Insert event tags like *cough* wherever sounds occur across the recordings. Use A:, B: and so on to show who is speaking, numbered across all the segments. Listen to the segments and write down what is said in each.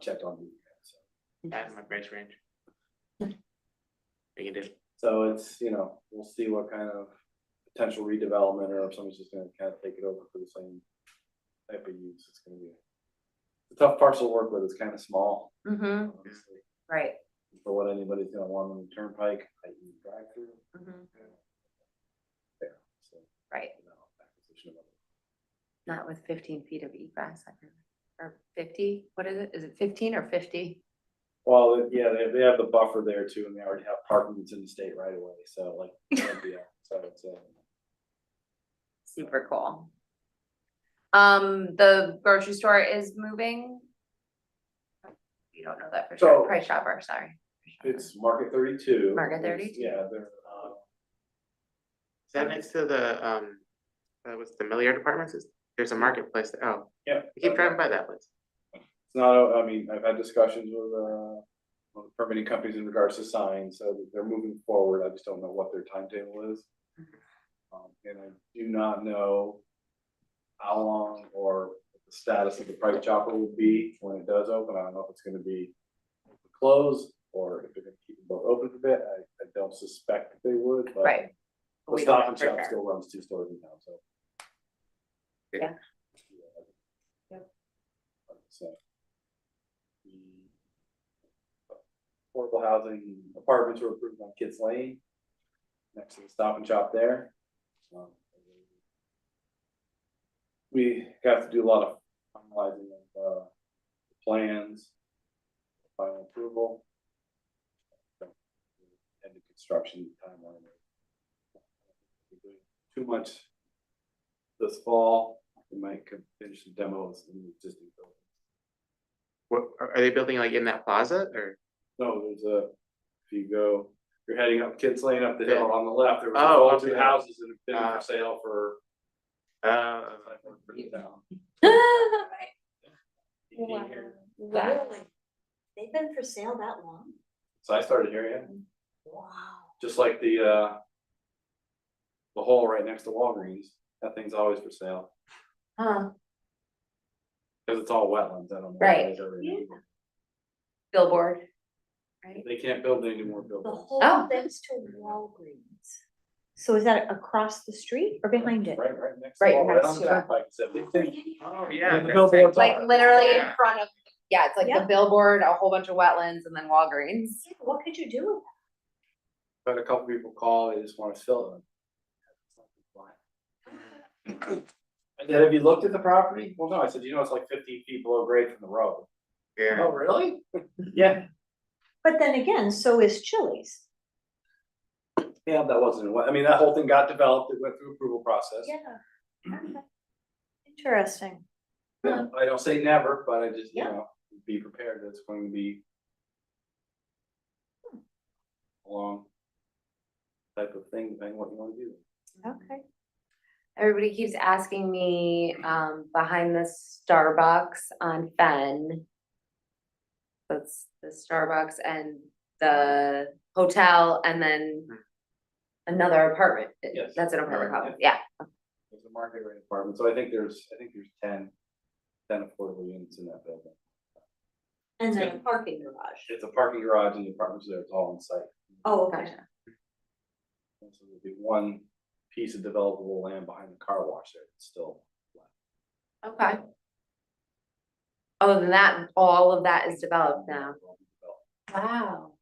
A: checked on you. so.
B: That's my price range. We can do,
A: So it's, you know, we'll see what kind of potential redevelopment or if somebody's just gonna kind of take it over for the same type of use, it's gonna be. The tough parcel to work with is kind of small,
C: Mm-hmm,
A: honestly,
C: right.
A: for what anybody's gonna want on the turnpike, i.e. drive through.
D: Mm-hmm.
C: mhm,
A: There, so,
C: Right,
A: you know, acquisition of other-
C: not with fifteen feet of egress, I remember. or fifty, what is it? Is it fifteen or fifty?
A: Well, yeah, they, they have the buffer there too, and they already have parking that's in the state right away, so
C: *laughs*
A: like, yeah, so it's, uh,
C: Super cool. Um, the grocery store is moving. You don't know that for sure,
A: So-
C: Price Chopper, sorry. Price Chopper.
A: it's Market thirty-two.
C: Market
A: There's-
C: 32.
A: Yeah, they're, uh,
B: is that next to the, um, uh, what's the Milliard Apartments? Is- There's a marketplace, there. oh,
A: yeah.
B: I keep driving by that place.
A: It's not, I mean, I've had discussions with, uh, with permitting companies in regards to signs, so they're moving forward, I just don't know what their timetable is. Um, and I do not know how long or what the status of the private chopper will be when it does open, I don't know if it's gonna be closed, or if they're gonna keep them both open for a bit, I, I don't suspect that they would, but
C: Right.
A: the
C: We don't
A: uh, Stop
C: know
A: and
C: for
A: Shop
C: sure.
A: still runs two stores in town, so.
C: Yeah.
A: Yeah.
C: Yep.
A: So. the Affordable housing apartments were approved on Kids Lane, next to the Stop and Shop there. Um, We got to do a lot of finalizing of, uh, plans, final approval. And the construction timeline be doing too much this fall, we might could finish the demos in the existing building.
B: What, are, are they building like in that plaza or?
A: No, there's a, if you go, you're heading up Kids Lane up the
B: Yeah.
A: hill on the left, there was
B: Oh,
A: all
B: up
A: two
B: the-
A: houses that have been
B: Ah.
A: for sale for.
B: Uh,
A: for the town.
D: Wow. They've been for sale that long?
A: So I started hearing it,
D: Wow.
A: just like the uh. The hole right next to Walgreens, that thing's always for sale,
C: Huh,
A: cause it's all wetlands, I don't know. if
C: Right.
A: it's already-
C: *laughs* billboard. Right,
A: They can't build any more
D: The
A: buildings.
C: Oh.
D: whole thing's to Walgreens. So is that across the street or behind it?
A: Right, right next.
C: Right
A: wall,
C: next
A: on the
C: to it.
A: turnpike, so they think-
B: oh,
A: Yeah,
B: yeah.
A: the
B: that's
A: billboards
B: right.
C: like literally in
B: Yeah.
C: front of, yeah, it's like the
D: Yeah.
C: billboard, a whole bunch of wetlands and then Walgreens.
D: Yeah, What could you do with that?
A: But a couple people call, they just wanna fill them. And then have you looked at the property? Well, no, I said, you know, it's like fifty feet below grade from the road.
B: Yeah,
A: Oh, really? *laughs* Yeah.
D: But then again, so is Chili's.
A: Yeah, that wasn't, what- I mean, that whole thing got developed, it went through approval process.
D: Okay. *clears throat* Interesting.
A: Yeah, I don't say never, but I just, you
D: Yeah.
A: know, be prepared, that's going to be. a Long. Type of thing, depending what you wanna do.
D: Okay.
C: Everybody keeps asking me, um, behind the Starbucks on Fen. That's the Starbucks and the hotel and then another apartment.
A: Yes.
C: That's an apartment
A: Right,
C: complex, yeah.
A: There's a market rate apartment, so I think there's, I think there's 10 10 affordable units in that building.
D: And then a parking garage.
A: It's a parking garage and the apartments there, it's all on site.
D: Oh, okay.
C: Gotcha.
A: And So there'll be one piece of developable land behind the car wash there, it's still.
C: Okay. Other than that, all of that is developed now. Wow.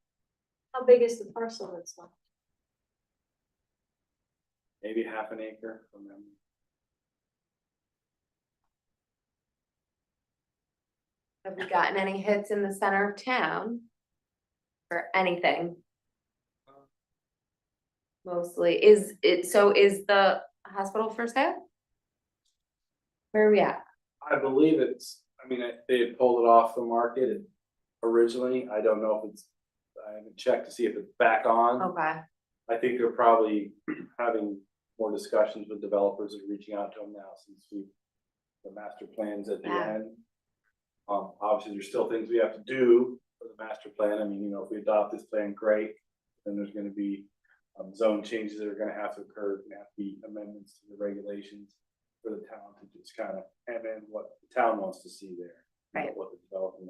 D: How big is the parcel that's left?
A: Maybe half an acre from them.
C: Have we gotten any hits in the center of town? Or anything? Mostly, is it, so is the hospital for sale? Where are we at?
A: I believe it's, I mean, I- they had pulled it off the market originally, I don't know if it's, I haven't checked to see if it's back on.
C: Okay,
A: I think they're probably having more discussions with developers and reaching out to them now since we, the master plans at the
C: Yeah.
A: end. Um, obviously, there's still things we have to do for the master plan. I mean, you know, if we adopt this plan, great. Then there's gonna be, um, zone changes that are gonna have to occur, and have to be amendments to the regulations for the town to just kind of, and then what the town wants to see there. you know,
C: Right.
A: What the development